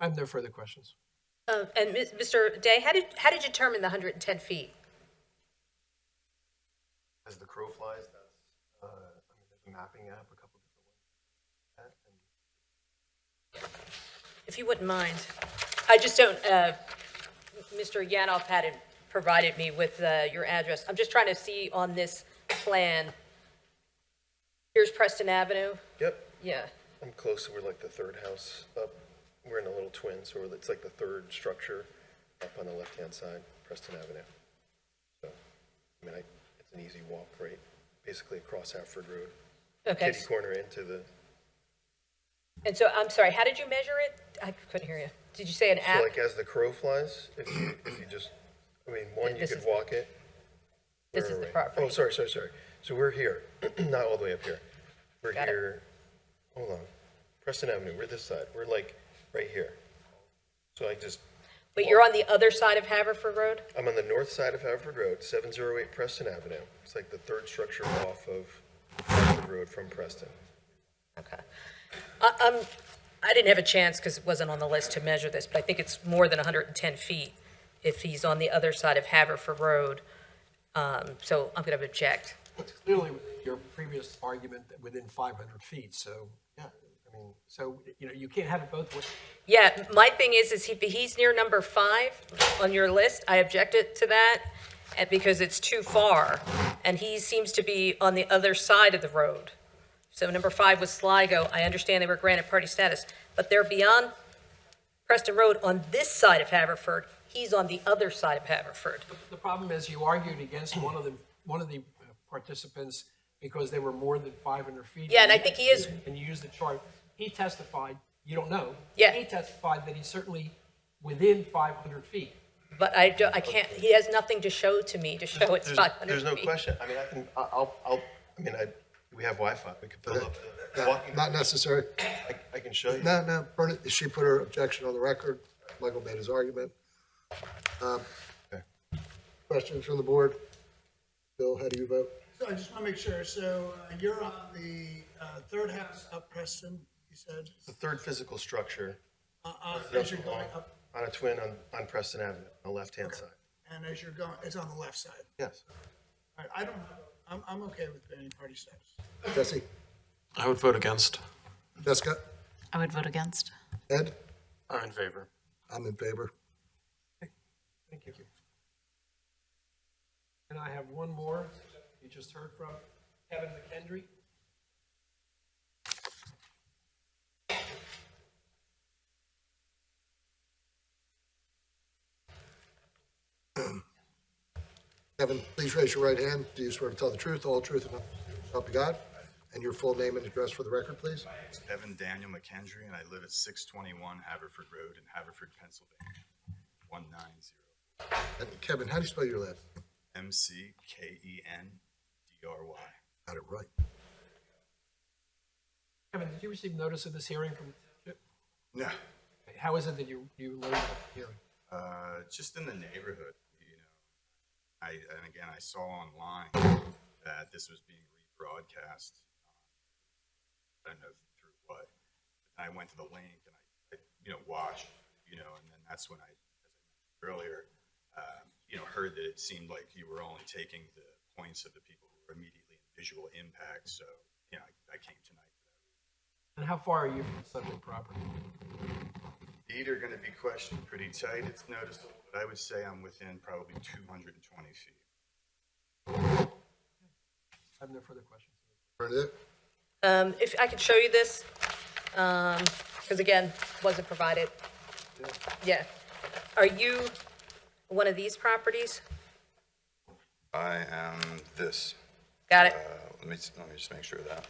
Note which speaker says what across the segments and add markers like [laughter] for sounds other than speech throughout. Speaker 1: I have no further questions.
Speaker 2: Uh, And Ms- Mr. Day, how did, how did you determine the 110 feet?
Speaker 3: As the crow flies, that's, uh, I mean, there's a mapping app, a couple different ones. That and-
Speaker 2: If you wouldn't mind. I just don't, uh, Mr. Yanoff hadn't provided me with uh, your address. I'm just trying to see on this plan. Here's Preston Avenue.
Speaker 3: Yep,
Speaker 2: Yeah,
Speaker 3: I'm close, we're like the third house up, we're in a little twin, so we're- it's like the third structure up on the left-hand side, Preston Avenue. So, I mean, I, it's an easy walk, right, basically across Hartford Road,
Speaker 2: okay.
Speaker 3: kitty corner into the,
Speaker 2: And so, I'm sorry, how did you measure it? I couldn't hear you. Did you say an
Speaker 3: so
Speaker 2: app?
Speaker 3: like as the crow flies, if you, if you just, I mean, one, you
Speaker 2: This
Speaker 3: could
Speaker 2: is-
Speaker 3: walk it.
Speaker 2: This
Speaker 3: Where
Speaker 2: is
Speaker 3: are
Speaker 2: the
Speaker 3: we?
Speaker 2: property.
Speaker 3: Oh, sorry, sorry, sorry. So we're here, [clears throat] not all the way up here. We're
Speaker 2: Got it.
Speaker 3: here, hold on, Preston Avenue, we're this side, we're like, right here. So I just,
Speaker 2: But you're on the other side of Haverford Road?
Speaker 3: I'm on the north side of Haverford Road, 708 Preston Avenue. It's like the third structure off of Haverford Road from Preston.
Speaker 2: Okay. I- I'm, I didn't have a chance because it wasn't on the list to measure this, but I think it's more than 110 feet if he's on the other side of Haverford Road. Um, So I'm going to object.
Speaker 1: It's clearly your previous argument that within 500 feet, so, yeah, I mean, so, you know, you can't have it both ways.
Speaker 2: Yeah, my thing is, is he, he's near number five on your list. I objected to that and because it's too far. And he seems to be on the other side of the road. So number five was Sligo. I understand they were granted party status, but they're beyond Preston Road on this side of Haverford. He's on the other side of Haverford.
Speaker 1: The problem is you argued against one of the, one of the participants because they were more than 500 feet.
Speaker 2: Yeah, and I think he is-
Speaker 1: And you used the chart. He testified, you don't know.
Speaker 2: Yeah.
Speaker 1: He testified that he's certainly within 500 feet.
Speaker 2: But I don't, I can't, he has nothing to show to me to show it's
Speaker 3: There's-
Speaker 2: 500 feet.
Speaker 3: There's no question. I mean, I can, I- I'll, I'll, I mean, I, we have Wi-Fi. We could pull up. the walking-
Speaker 4: Not necessary.
Speaker 3: I- I can show you.
Speaker 4: No, no, Bernie, she put her objection on the record. Michael made his argument. Um,
Speaker 3: Okay.
Speaker 4: Questions from the board? Bill, how do you vote?
Speaker 5: So I just want to make sure, so uh, you're on the uh, third house up Preston, you said,
Speaker 3: The third physical structure
Speaker 5: Uh, uh, as you're going up,
Speaker 3: on a twin on, on Preston Avenue, on the left-hand side.
Speaker 5: and as you're going, it's on the left side.
Speaker 3: Yes.
Speaker 5: All right, I don't, have- I'm, I'm okay with any party status.
Speaker 4: Jesse?
Speaker 6: I would vote against.
Speaker 4: Jessica?
Speaker 7: I would vote against.
Speaker 4: Ed?
Speaker 6: I'm in favor.
Speaker 4: I'm in favor.
Speaker 1: Thank you. And I have one more, you just heard from Kevin McKendry.
Speaker 4: Kevin, please raise your right hand. Do you swear to tell the truth, all truth, and nothing but the truth, so help you God? And your full name and address for the record, please?
Speaker 8: It's Evan Daniel McKendry, and I live at 621 Haverford Road in Haverford, Pennsylvania, 190.
Speaker 4: And Kevin, how do you spell your last? name?
Speaker 8: E M-C-K-E-N-D-R-Y.
Speaker 4: Got it right.
Speaker 1: Kevin, did you receive notice of this hearing from,
Speaker 8: No.
Speaker 1: how is it that you, you learned of the hearing?
Speaker 8: Uh, Just in the neighborhood, you know. I, and again, I saw online that this was being rebroadcast. uh, I don't know through what. And I went to the link and I, I, you know, watched, you know, and then that's when I, as I mentioned earlier, um, you know, heard that it seemed like you were only taking the points of the people who were immediately in visual impact, so, you know, I I came tonight.
Speaker 1: And how far are you from the subject property?
Speaker 8: Feet are gonna be questioned pretty tight, it's noticeable, but I would say I'm within probably 220 feet.
Speaker 1: I have no further questions.
Speaker 4: Bernadette?
Speaker 2: Um, If I could show you this, because again, wasn't provided. Yeah. Are you one of these properties?
Speaker 8: I am this.
Speaker 2: Got it?
Speaker 8: Uh, Let me, let me just make sure of that.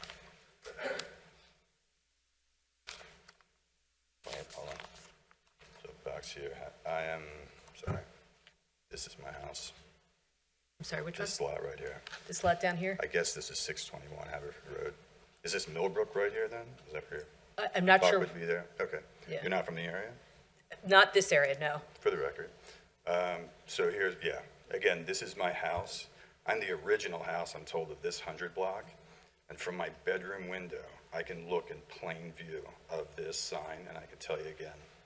Speaker 8: Hold on, hold on. So back to your, ha- I am, sorry, this is my house,
Speaker 2: I'm sorry, which one?
Speaker 8: this lot right here.
Speaker 2: This lot down here?
Speaker 8: I guess this is 621 Haverford Road. Is this Millbrook right here then? Is that where
Speaker 2: I- I'm not
Speaker 8: your lot
Speaker 2: sure,
Speaker 8: would be there? Okay.
Speaker 2: Yeah.
Speaker 8: You're not from the area?
Speaker 2: not this area, no.
Speaker 8: for the record. Um, So here's, yeah, again, this is my house. I'm the original house, I'm told, of this 100 block. And from my bedroom window, I can look in plain view of this sign, and I can tell you again,